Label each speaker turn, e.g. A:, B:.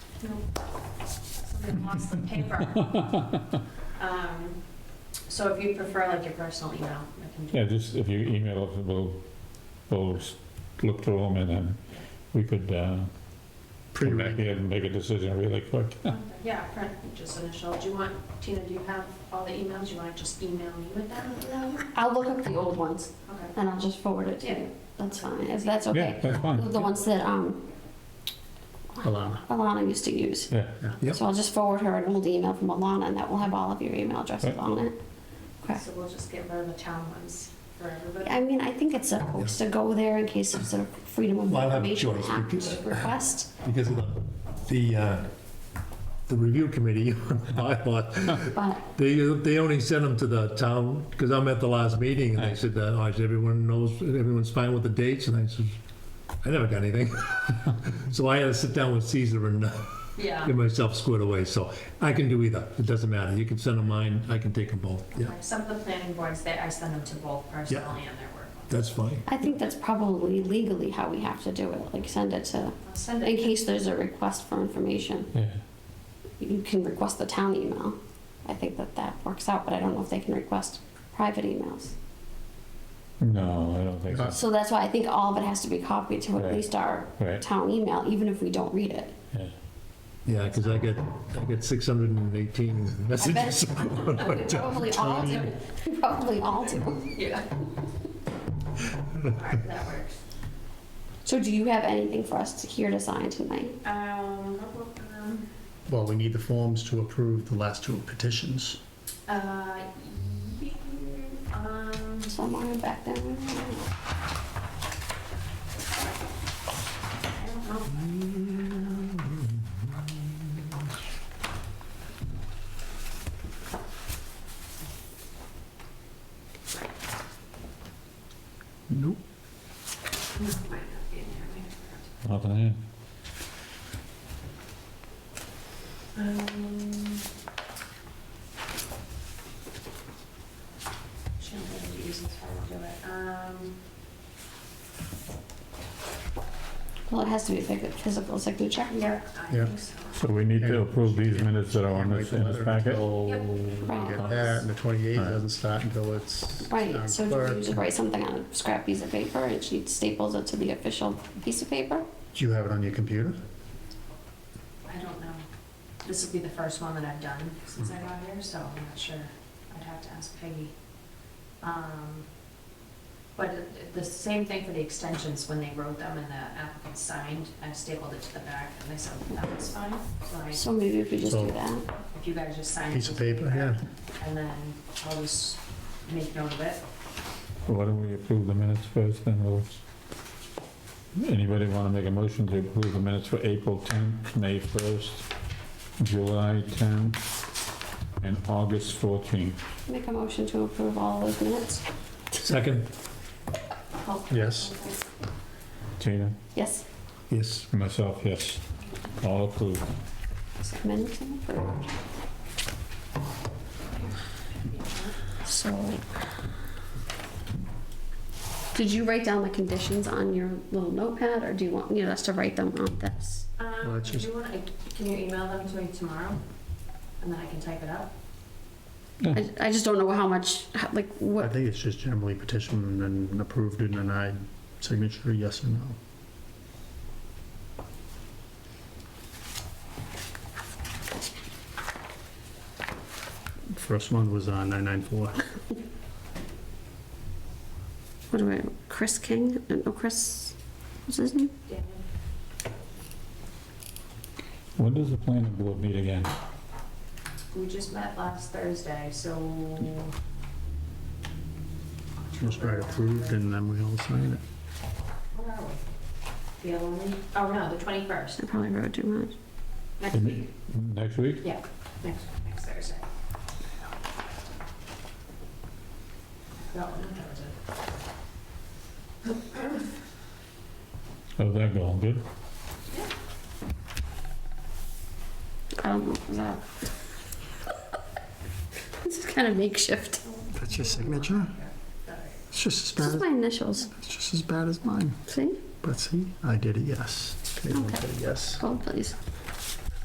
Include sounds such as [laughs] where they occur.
A: Somebody lost the paper. Um, So if you prefer like your personal email, I can do
B: Yeah, just if you email us, we'll, we'll s- look through them and then we could, uh, come back
C: Pre-read.
B: here and make a decision really quick.
A: Yeah, print, just initial. Do you want, Tina, do you have all the emails? Do you want to just email me with them?
D: I'll look up the old ones
A: Okay.
D: and I'll just forward it to
A: Yeah.
D: you. That's fine, if that's
B: Yeah,
D: okay.
B: that's fine.
D: The ones that, um,
C: Alana.
D: Alana used to use.
B: Yeah,
C: Yeah. Yep.
D: So I'll just forward her an old email from Alana and that will have all of your email addresses
B: Right.
D: on it. Okay.
A: So we'll just get rid of the town ones for everybody.
D: I mean, I think it's supposed to go there in case of sort of freedom of
C: Well, I'll have
D: information
C: Joyce
D: Act
C: repeat it.
D: request.
C: Because of the, the, uh, the review committee [laughs] on the bylaw,
D: But
C: they, they only sent them to the town, because I'm at the last meeting, and they said that, oh, is everyone knows, everyone's fine with the dates, and I said, I never got anything. [laughs] So I had to sit down with Caesar and uh,
A: Yeah.
C: get myself squared away, so I can do either, it doesn't matter, you can send them mine, I can take them both, yeah,
A: Okay, Some of the planning boards, they, I send them to both personal and their work. ones.
C: that's fine.
D: I think that's probably legally how we have to do it, like send it to,
A: I'll send
D: in
A: it.
D: case there's a request for information.
B: yeah.
D: You can request the town email. I think that that works out, but I don't know if they can request private emails.
B: No, I don't think
E: Oh.
B: so.
D: So that's why I think all of it has to be copied to at
B: Right.
D: least our
B: Right,
D: town email, even if we don't read it.
B: yeah.
C: Yeah, because I get, I get 618
D: I
C: messages.
D: bet, [laughs]
E: Uh, [laughs]
D: probably all do, [laughs] probably all do.
A: Yeah. All right, that works.
D: So do you have anything for us to here to sign tonight?
A: Um, um,
E: Well, we need the forms to approve the last two petitions.
A: uh, ye- um,
D: Somewhere back there?
A: I don't know.
C: Nope.
A: This might not be in there, maybe I forgot to
B: Nothing here.
A: Um, Shouldn't really use this one to do it. Um,
D: Well, it has to be a physi- physical signature.
A: yeah, I
E: Yeah.
A: think so.
B: So we need to approve these minutes that are on this, in this packet?
E: Until
A: Yep.
E: we
D: Right.
E: get that, and the 28th doesn't start until it's town
D: Right, so do you
E: clerk.
D: just write something on a scrap piece of paper and she staples it to the official piece of paper?
E: Do you have it on your computer?
A: I don't know. This would be the first one that I've done since I got here, so I'm not sure. I'd have to ask Peggy. Um, But it- the same thing for the extensions, when they wrote them and the applicant signed, I stapled it to the back and they said that was fine. So I-
D: So maybe if we just do
E: So-
D: that.
A: if you guys just sign. it,
E: Piece of
A: just leave
E: paper,
A: it
E: yeah.
A: And then I'll just make note of it.
B: So Why don't we approve the minutes first, then we'll... Anybody want to make a motion to approve the minutes for April 10th, May 1st, July 10th, and August 14th?
D: Make a motion to approve all those minutes.
C: Second,
E: Yes.
B: Tina?
D: Yes,
C: yes.
B: Myself, yes. All approved.
D: minutes approved. So. Did you write down the conditions on your little notepad or do you want, you know, us to write them on this?
E: Well,
A: Um,
E: it's
A: do you want, can you email them to me tomorrow? And then I can type it up?
D: I, I just don't know how much, how- like,
E: I
D: what,
E: think it's just generally petitioned and approved and denied, signature, yes or no. First one was uh, on 994.
D: what do I, Chris King? Uh, No, Chris, what's his name?
A: Daniel?
B: When does the planning board meet again?
A: We just met last Thursday, so.
E: Just write approved and then we all sign it.
A: Where are we? The only, oh no, the twenty-first,
D: I probably wrote too much.
A: next
E: Mm-hmm.
A: week,
B: Next week?
A: yeah, next, next Thursday. That one, that was it.
B: How's that going? Good?
D: I don't know, was that? [laughs] This is kind of makeshift.
E: That's your signature? It's just as
D: This
E: bad,
D: is my initials,
E: as- it's just as bad as mine.
D: see?
E: But see, I did a yes. Caitlin did a yes.
D: Hold please.